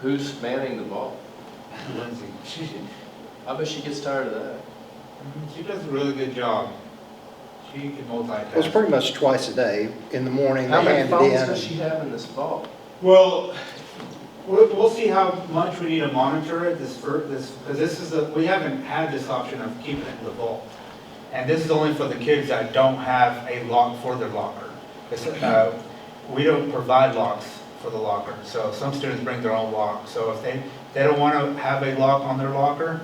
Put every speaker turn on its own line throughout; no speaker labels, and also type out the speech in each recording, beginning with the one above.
Who's manning the ball?
Lindsay, she,
I bet she gets tired of that.
she does a really good job. She can
It was
multitask.
pretty much twice a day. In the morning,
How
they
many
handed
phones does she
in.
have in this ball?
Well, we'll, we'll see how much we need to monitor it this fir, this, because this is, a- we haven't had this option of keeping it in the vault. And this is only for the kids that don't have a lock for their locker. It's, uh, we don't provide locks for the locker, so some students bring their own lock. So if they, they don't want to have a lock on their locker,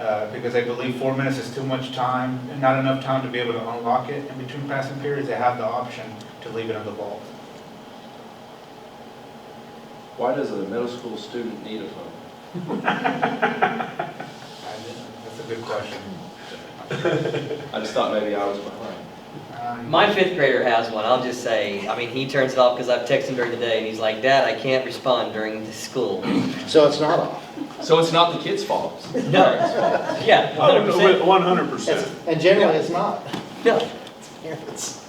uh, because they believe four minutes is too much time, and not enough time to be able to unlock it in between passing periods, they have the option to leave it in the vault.
Why does a middle school student need a phone?
That's a good question.
I just thought maybe I was behind.
Um,
My fifth grader has one, I'll just say, I mean, he turns it off because I've texted him during the day, and he's like, Dad, I can't respond during the school.
So it's not off.
So it's not the kid's fault?
No, yeah,
Oh,
hundred percent,
One hundred percent.
It's- And generally, it's not.
no.
It's-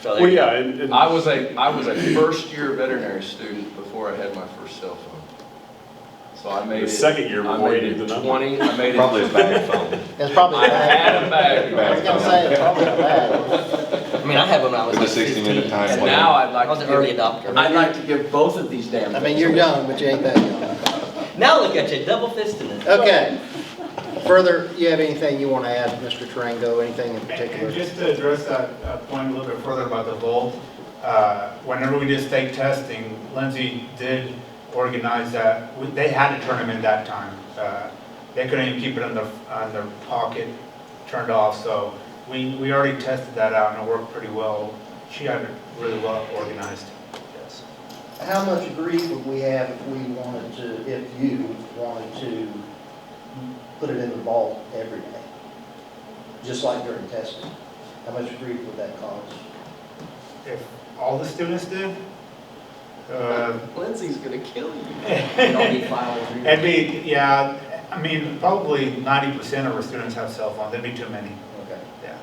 So there
Well,
you go.
yeah, and, and
I was a, I was a first-year veterinary student before I had my first cell phone. So I made it.
The second year
I
before you
made
did
it
the number.
Twenty, I made it.
Probably a bad phone.
It's probably
I
bad.
had a bag.
I was gonna say, it's probably bad.
I mean, I had one when I was
With the
like
60 minute
fifteen.
time
And
limit.
now I'd like
I
to.
was an
give-
early adopter.
I'd like to give both of these damn.
I mean,
things
you're
away.
young, but you ain't that young.
Now look at you, double fisting it.
Okay. Further, you have anything you want to add, Mr. Tarango, anything in
And
particular?
and just to address that uh, point a little bit further about the vault, uh, whenever we did state testing, Lindsay did organize that, We- they had to turn them in that time. Uh, They couldn't even keep it in their, on their pocket, turned off, so we, we already tested that out and it worked pretty well. She had it really well organized, yes.
How much grief would we have if we wanted to, if you wanted to put it in the vault every day? Just like during testing? How much grief would that cause?
If all the students did, uh,
Lindsay's gonna kill you.
Don't be filed.
It'd be, yeah, I mean, probably ninety percent of our students have cell phones, that'd be too many,
Okay.
yeah.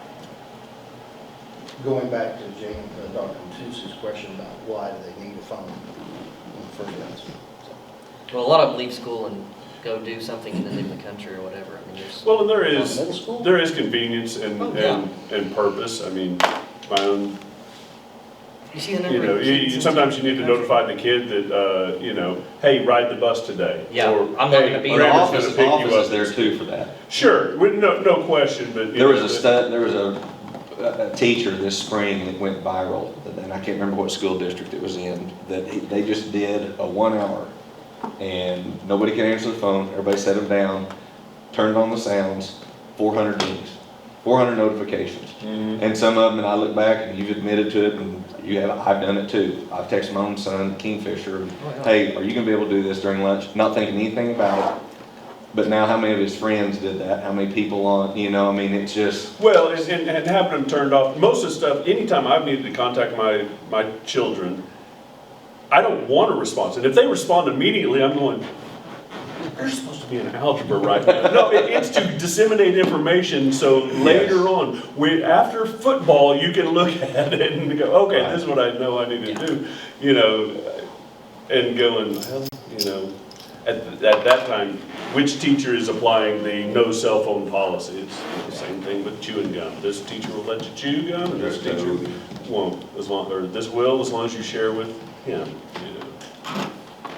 Going back to Jane, uh, Dr. Matus's question about why do they need a phone in the first place?
Well, a lot of them leave school and go do something and then leave the country or whatever. I mean, there's,
Well, and there
On middle
is,
school?
there is convenience and,
Oh, yeah.
and, and purpose. I mean, my own,
you see the number?
you know,
of
you,
kids
you-
in-
sometimes you need to notify the kid that, uh, you know, hey, ride the bus today.
Yeah,
Or,
I'm not gonna
"Hey,
be
But the
there.
Grammer's
office,
gonna
the
pick you
office is
up."
there too for that.
Sure, we- no, no question, but. you
There was
know,
a
that-
stud, there was a, a a teacher this spring that went viral, and I can't remember what school district it was in, that he- they just did a one hour. And nobody could answer the phone, everybody set them down, turned on the sounds, four hundred dings, four hundred notifications.
Mhm.
And some of them, and I look back, and you've admitted to it, and you have, I've done it too. I've texted my own son, Kingfisher, and,
Oh,
yeah.
hey, are you gonna be able to do this during lunch? Not thinking anything about it. But now, how many of his friends did that? How many people on, you know, I mean, it's just,
Well, and, and, and having them turned off, most of the stuff, anytime I've needed to contact my, my children, I don't want a response, and if they respond immediately, I'm going, you're supposed to be in algebra right now. No, it, it's to disseminate information, so later on, we, after football, you can look at it and go, okay, this is what I know I need to do, you know, and going, well, you know, at, at that time, which teacher is applying the no cell phone policy? It's the same thing with chewing gum. This teacher will let you chew gum, and this
There's
teacher
no-
won't, as long, or this will, as long as you share with him, you know.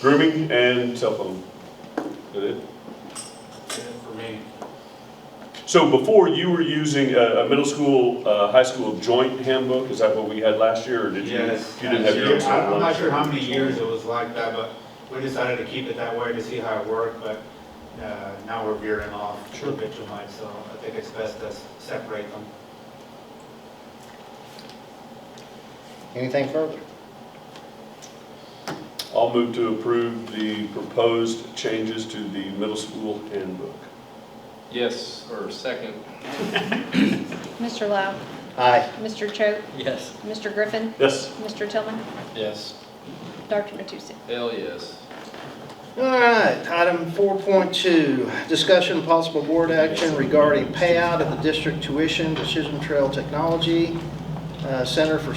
Grooming and cell phone. That it?
For me.
So before, you were using a, a middle school, uh, high school joint handbook? Is that what we had last year, or did you?
Yes.
You didn't have your own
I- I'm
one?
not sure how many years it was like that, but we decided to keep it that way to see how it worked, but uh, now we're veering off a bit too much, so I think it's best to s- separate them.
Anything further?
I'll move to approve the proposed changes to the middle school handbook.
Yes, or second.
Mr. Lau,
Aye.
Mr. Choate,
Yes.
Mr. Griffin,
Yes.
Mr. Tillman,
Yes.
Dr. Matusek.
Hell, yes.
All right, item 4.2, discussion and possible board action regarding payout of the district tuition to Chisholm Trail Technology uh, Center for